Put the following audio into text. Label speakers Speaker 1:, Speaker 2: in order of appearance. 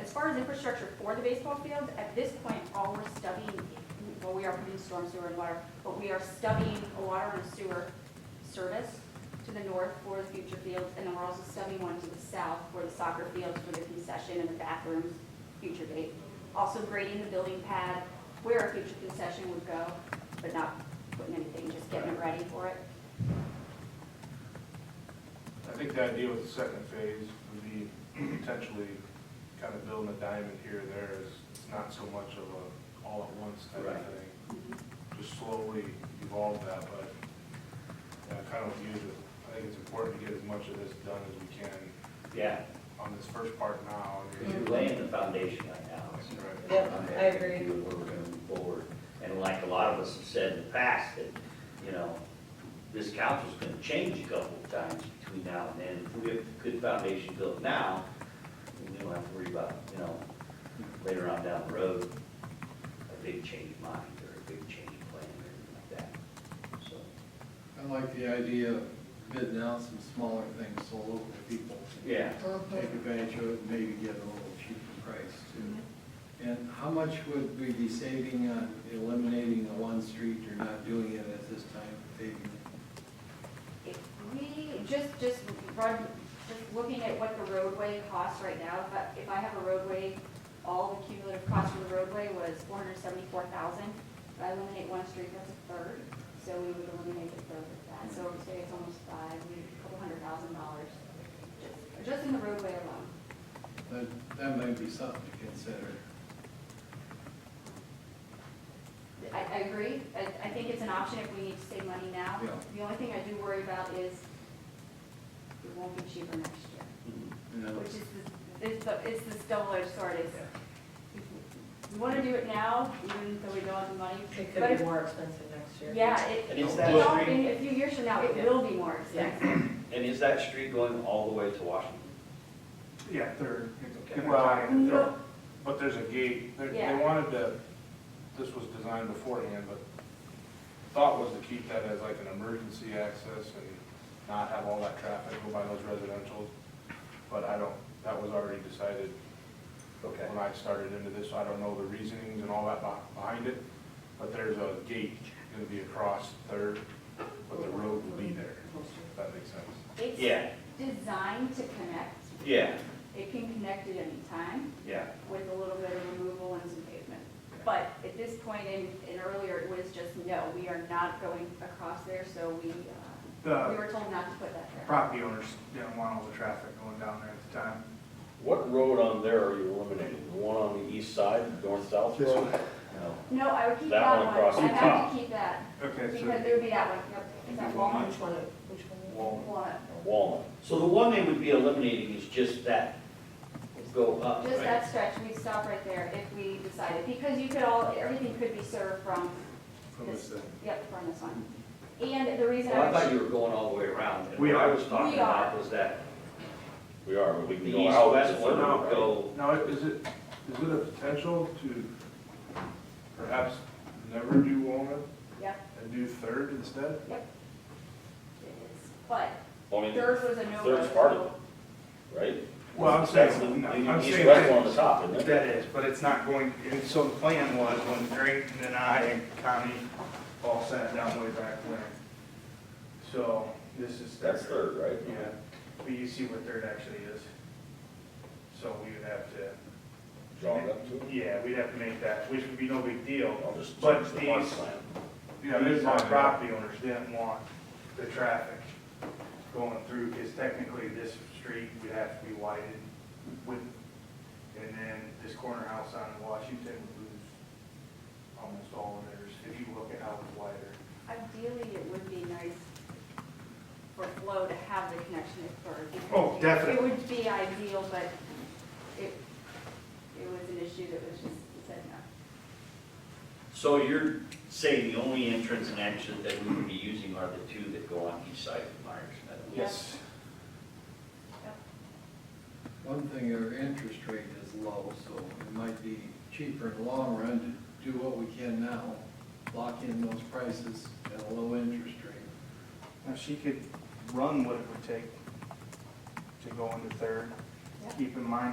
Speaker 1: as infrastructure for the baseball field, at this point, all we're stubbing, well, we are putting storm sewer and water, but we are stubbing a water and sewer service to the north for the future fields, and then we're also stubbing one to the south for the soccer fields for the concession and the bathrooms, future date. Also grading the building pad where a future concession would go, but not putting anything, just getting it ready for it.
Speaker 2: I think the idea with the second phase would be potentially kind of building a diamond here and there is, it's not so much of a all at once type of
Speaker 3: Right.
Speaker 2: thing.
Speaker 1: Mm-hmm.
Speaker 2: Just slowly evolve that, but, yeah, kind of with you, I think it's important to get as much of this done as we can
Speaker 3: Yeah,
Speaker 2: on this first part now. and
Speaker 3: you're laying the foundation right now.
Speaker 2: That's right.
Speaker 4: Mm-hmm. Yep, I agree.
Speaker 3: And We're gonna move forward, and like a lot of us have said in the past, that, you know, this council's gonna change a couple of times between now and then. If we have a good foundation built now, we don't have to worry about, you know, later on down the road, a big change of mind, or a big change of plan, or anything like that, so.
Speaker 5: I like the idea of bidding out some smaller things so local people can
Speaker 3: Yeah,
Speaker 5: take advantage of it and maybe get a little cheaper price too. And how much would we be saving on eliminating the one street or not doing it at this time, paving it?
Speaker 1: If we, just, just run, just looking at what the roadway costs right now, if I, if I have a roadway, all the cumulative cost for the roadway was four hundred seventy-four thousand. If I eliminate one street, that's a third, so we would eliminate a third of that, so we say it's almost five, we, a couple hundred thousand dollars, just, just in the roadway alone.
Speaker 5: That, that might be something to consider.
Speaker 1: I, I agree. I, I think it's an option if we need to save money now.
Speaker 5: Yeah.
Speaker 1: The only thing I do worry about is it won't be cheaper next year,
Speaker 4: Mm-hmm.
Speaker 5: You know,
Speaker 1: which is, this- it's, the- it's this double-edged sword. It's, we want to do it now, even though we don't have the money.
Speaker 4: It
Speaker 1: But
Speaker 4: could
Speaker 1: if-
Speaker 4: be more expensive next year.
Speaker 1: Yeah, it,
Speaker 3: And is
Speaker 1: it
Speaker 3: that
Speaker 1: all-
Speaker 3: street-
Speaker 1: in a few years from now, it
Speaker 4: Yeah.
Speaker 1: will be more expensive.
Speaker 3: and is that street going all the way to Washington?
Speaker 6: Yeah, third.
Speaker 2: Well,
Speaker 1: No.
Speaker 2: they're- but there's a gate, they, they
Speaker 1: Yeah.
Speaker 2: wanted to, this was designed beforehand, but the thought was to keep that as like an emergency access and not have all that traffic go by those residential. But I don't, that was already decided
Speaker 3: Okay.
Speaker 2: when I started into this, I don't know the reasonings and all that beh- behind it, but there's a gate gonna be across Third, but the road will be there, if that makes sense.
Speaker 3: Yeah,
Speaker 1: It's designed to connect.
Speaker 3: yeah,
Speaker 1: It can connect at any time.
Speaker 3: yeah,
Speaker 1: with a little bit of removal and some pavement. But at this point, and, and earlier, it was just, no, we are not going across there, so we, uh, we
Speaker 6: The
Speaker 1: were told not to put that there.
Speaker 6: property owners didn't want all the traffic going down there at the time.
Speaker 7: What road on there are you eliminating? The one on the east side, the north-south road?
Speaker 3: no.
Speaker 1: No, I would keep
Speaker 7: That
Speaker 1: that
Speaker 7: one
Speaker 1: one,
Speaker 7: across
Speaker 1: I
Speaker 7: the
Speaker 1: have to keep that,
Speaker 6: Okay, so
Speaker 1: because it would be that one, yep, is that Walnut?
Speaker 4: Which one, which one?
Speaker 1: Walnut,
Speaker 7: Walnut.
Speaker 3: So the one they would be eliminating is just that, go up,
Speaker 1: just
Speaker 3: right?
Speaker 1: that stretch, we'd stop right there if we decided, because you could all, everything could be served from,
Speaker 5: From this end.
Speaker 1: yep, from this one. And the reason
Speaker 3: Well,
Speaker 1: I
Speaker 3: I thought
Speaker 1: was,
Speaker 3: you were going all the way around. and
Speaker 6: We
Speaker 3: What I
Speaker 6: are.
Speaker 3: was talking
Speaker 1: We are.
Speaker 3: about was that
Speaker 7: We are, but
Speaker 3: the
Speaker 7: we can go out.
Speaker 3: east-west one would
Speaker 7: Right.
Speaker 3: go,
Speaker 2: Now, is it, is it a potential to perhaps never do Walnut
Speaker 1: yep,
Speaker 2: and do Third instead?
Speaker 1: it is, but
Speaker 7: I mean,
Speaker 1: theirs was a no.
Speaker 7: Third's part of it. right?
Speaker 6: Well, I'm
Speaker 7: That's the,
Speaker 6: saying, no, I'm
Speaker 7: the
Speaker 6: saying
Speaker 7: east-west
Speaker 6: that,
Speaker 7: one on the top, isn't it?
Speaker 6: that is, but it's not going, and so the plan was when Drayton and I and Connie all sat down way back when. So this is.
Speaker 7: That's third, right?
Speaker 6: Yeah, but you see what third actually is. So we would have to,
Speaker 7: Draw it up to it?
Speaker 6: yeah, we'd have to make that, which would be no big deal,
Speaker 7: I'll just
Speaker 6: But
Speaker 7: change the
Speaker 6: these-
Speaker 7: park plan.
Speaker 6: Yeah, these my property owners didn't want the traffic going through, because technically this street would have to be widened with, and then this corner house on Washington would lose almost all of theirs, if you look at how it's wider.
Speaker 1: Ideally, it would be nice for Flo to have the connection at Bird. because
Speaker 6: Oh,
Speaker 1: It
Speaker 6: definitely.
Speaker 1: would be ideal, but it, it was an issue that was just, it said no.
Speaker 3: so you're saying the only entrance and exit that we would be using are the two that go on each side of Myers Meadow?
Speaker 1: Yes.
Speaker 5: One thing, our interest rate is low, so it might be cheaper in the long run to do what we can now, lock in those prices at a low interest rate.
Speaker 6: Now, she could run what it would take to go into third.
Speaker 1: Yeah.
Speaker 6: Keep in mind,